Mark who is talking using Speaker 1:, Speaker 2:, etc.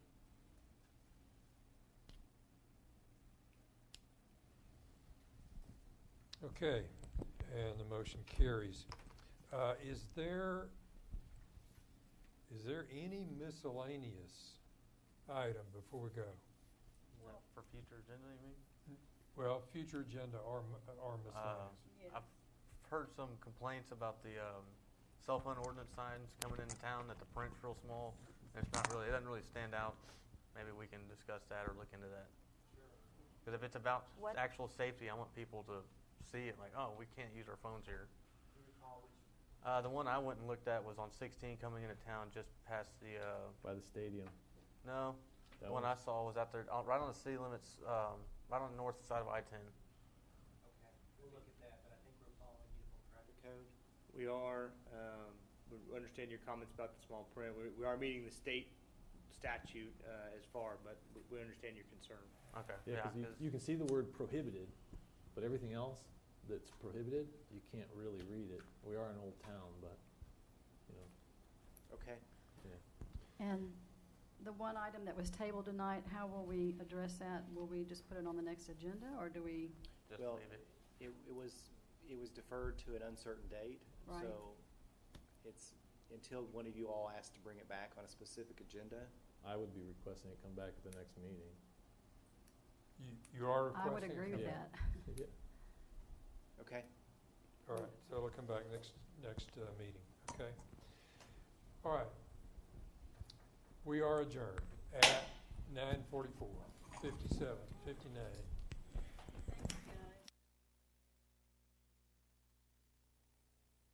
Speaker 1: Okay, and the motion carries. Uh, Is there, is there any miscellaneous item before we go?
Speaker 2: Well, For future agenda, you mean?
Speaker 1: Well, future agenda or m- or miscellaneous.
Speaker 3: Yeah.
Speaker 2: Uh, I've heard some complaints about the um, cell phone ordinance signs coming into town, that the print's real small, and it's not really, it doesn't really stand out. Maybe we can discuss that or look into that. Because if it's about
Speaker 3: What-
Speaker 2: actual safety, I want people to see it, like, oh, we can't use our phones here. Uh, The one I went and looked at was on 16 coming into town, just past the, uh,
Speaker 4: by the stadium.
Speaker 2: no, the
Speaker 4: That
Speaker 2: one I
Speaker 4: one's-
Speaker 2: saw was out there, uh, right on the city limits, um, right on the north side of I-10.
Speaker 5: Okay, we'll look at that, but I think we're following uniform traffic code.
Speaker 6: We are, um, we understand your comments about the small print. We, we are meeting the state statute, uh, as far, but we, we understand your concern.
Speaker 2: Okay,
Speaker 4: Yeah,
Speaker 2: yeah,
Speaker 4: because you,
Speaker 2: 'cause-
Speaker 4: you can see the word prohibited, but everything else that's prohibited, you can't really read it. We are an old town, but, you know,
Speaker 6: Okay.
Speaker 4: yeah.
Speaker 3: And the one item that was tabled tonight, how will we address that? Will we just put it on the next agenda, or do we,
Speaker 2: just
Speaker 5: Well,
Speaker 2: leave it.
Speaker 5: It, it was, it was deferred to an uncertain date,
Speaker 3: Right.
Speaker 5: so it's until one of you all asks to bring it back on a specific agenda.
Speaker 4: I would be requesting it come back at the next meeting.
Speaker 1: You- You are
Speaker 3: I
Speaker 1: requesting?
Speaker 3: would
Speaker 1: it
Speaker 3: agree with
Speaker 1: come
Speaker 4: Yeah.
Speaker 3: that.
Speaker 1: back?
Speaker 4: Yeah.
Speaker 5: Okay,
Speaker 1: All right, so it'll come back next, next uh, meeting, okay? All right. We are adjourned at nine forty-four, fifty-seven, fifty-nine.